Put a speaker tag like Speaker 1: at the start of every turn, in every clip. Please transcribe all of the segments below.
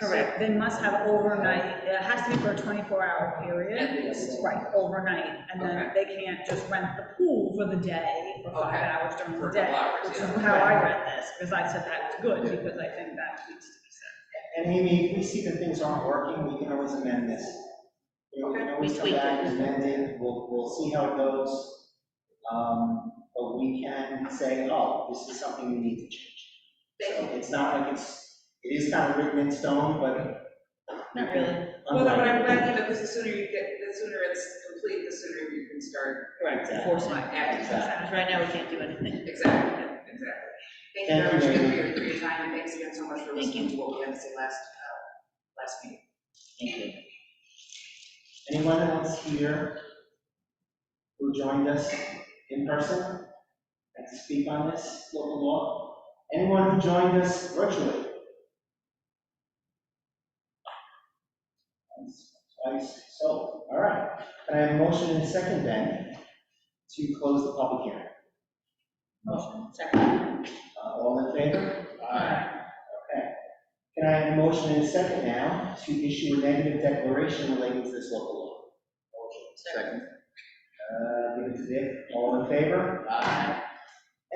Speaker 1: Correct, they must have overnight, it has to be for a 24-hour period.
Speaker 2: At least.
Speaker 1: Right, overnight, and then they can't just rent the pool for the day, for five
Speaker 2: Okay.
Speaker 1: hours during
Speaker 2: For
Speaker 1: the
Speaker 2: a couple
Speaker 1: day.
Speaker 2: hours,
Speaker 1: Which is
Speaker 2: yeah.
Speaker 1: how I read this, because I said that was good, because I think that needs to be said.
Speaker 3: And Amy, if we see that things aren't working, we can always amend this. You know, we can always come
Speaker 4: tweak
Speaker 3: back
Speaker 4: it.
Speaker 3: and amend it, we'll, we'll see how it goes. Um, But we can say, oh, this is something we need to change. So it's not like it's, it is kind of written in stone, but.
Speaker 4: Not really.
Speaker 2: Well, no, but I'm
Speaker 3: unlike-
Speaker 2: glad, you know, because the sooner you get, the sooner it's complete, the sooner you can start
Speaker 4: Correct,
Speaker 3: Yeah.
Speaker 4: enforcement.
Speaker 2: acting.
Speaker 4: Because right now, we can't do anything.
Speaker 2: Exactly, exactly. Thank you very much
Speaker 3: Thank you,
Speaker 2: again for
Speaker 3: Mary.
Speaker 2: your, for your time, and thanks again so much for
Speaker 4: Thank
Speaker 2: listening to what we had to say last, uh, last meeting.
Speaker 4: Thank you.
Speaker 3: Anyone else here who joined us in person and to speak on this local law? Anyone who joined us virtually? Once, Twice, so, all right. Can I have a motion and a second then to close the public hearing?
Speaker 4: Motion, second.
Speaker 3: Uh, All in favor? Aye. Okay. Can I have a motion and a second now to issue a negative declaration relating to this local law?
Speaker 4: Second.
Speaker 3: Uh, Give it to Dick, all in favor? Aye.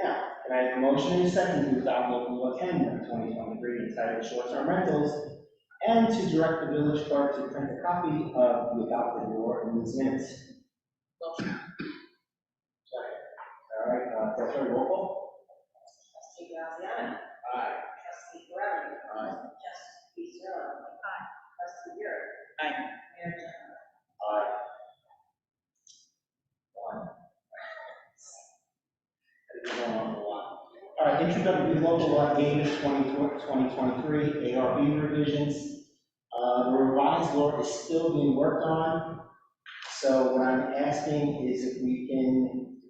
Speaker 3: Now, can I have a motion and a second to adopt local law ten of twenty twenty-three entitled short-term rentals and to direct the village clerk to print a copy of the adopted law in these minutes? Second. All right, uh, Director roll call?
Speaker 5: Trustee Graziano.
Speaker 3: Aye.
Speaker 5: Trustee Guerrero.
Speaker 3: Aye.
Speaker 5: Trustee Zerlo. Aye. Trustee Garrett.
Speaker 4: Aye.
Speaker 5: Mayor Jenna.
Speaker 3: Aye. One. I think we're going on for a while. All right, introductory local law eight of 2023, ARB revisions. Uh, The revised law is still being worked on, so what I'm asking is if we can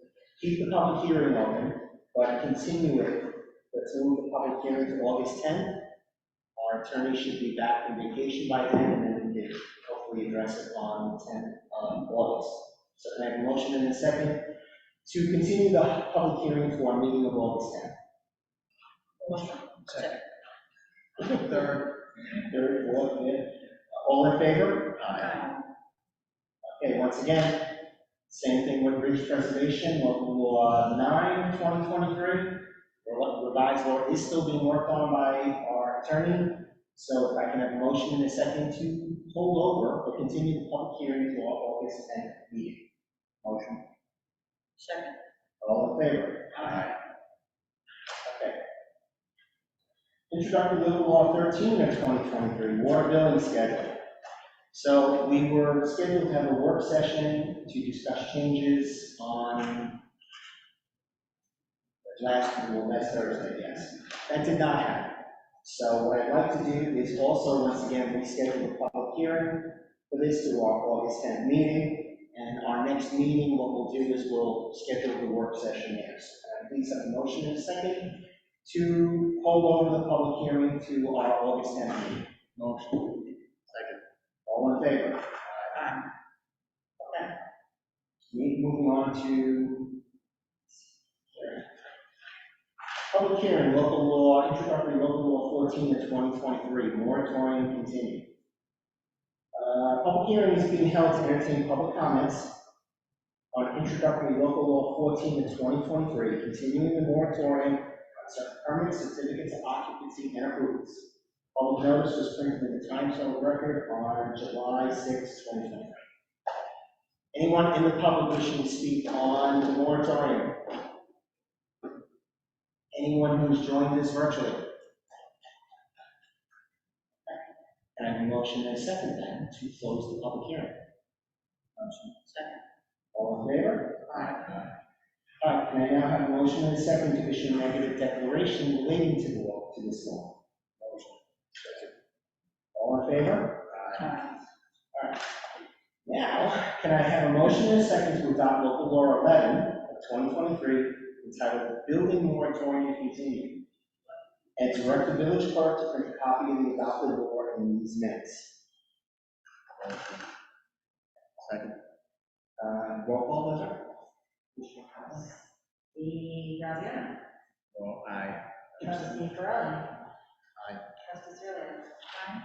Speaker 3: keep the public hearing open, but continue it, let's move the public hearing to August 10th. Our attorney should be back from vacation by then, and then we can hopefully address it on the 10th of August. So can I have a motion in a second to continue the public hearing for our meeting of August 10th?
Speaker 4: Motion. Second.
Speaker 3: Third. Third, fourth, fifth. All in favor?
Speaker 4: Aye.
Speaker 3: Okay, once again, same thing with bridge preservation, local law 9, 2023. Re- Revised law is still being worked on by our attorney. So if I can have a motion in a second to hold over or continue the public hearing to our August 10th meeting. Motion.
Speaker 4: Second.
Speaker 3: All in favor? Aye. Okay. Introductory local law thirteen of twenty twenty-three, water billing schedule. So we were scheduled to have a work session to discuss changes on last, well, last Thursday, yes. That did not happen. So what I'd like to do is also, once again, reschedule the public hearing for this to our August tenth meeting. And our next meeting, what we'll do is we'll schedule the work session there. So can I Please have a motion in a second to hold over the public hearing to our August 10th meeting. Motion. Second. All in favor? Aye. Okay. Me- Moving on to public hearing, local law, introductory local law 14 of 2023, moratorium continued. Uh, Public hearing is being held to entertain public comments on introductory local law 14 of 2023, continuing the moratorium on such permanent certificates of occupancy and approvals. Public notice was printed in the Times Herald Record on July 6, 2023. Anyone in the public wishing to speak on the moratorium? Anyone who's joined us virtually? And I have a motion and a second then to close the public hearing. Motion.
Speaker 4: Second.
Speaker 3: All in favor? Aye. All right, can I now have a motion and a second to issue a negative declaration relating to the law, to this law? Motion. All in favor?
Speaker 4: Aye.
Speaker 3: Now, can I have a motion and a second to adopt local law 11 of 2023 entitled Building Moratorium Continued? And direct the village clerk to print a copy of the adopted law in these minutes. Second. Uh, roll call, Heather?
Speaker 5: Trustee Graziano.
Speaker 3: Well, aye.
Speaker 5: Trustee Guerrero.
Speaker 3: Aye.
Speaker 5: Trustee Zerlo. Aye.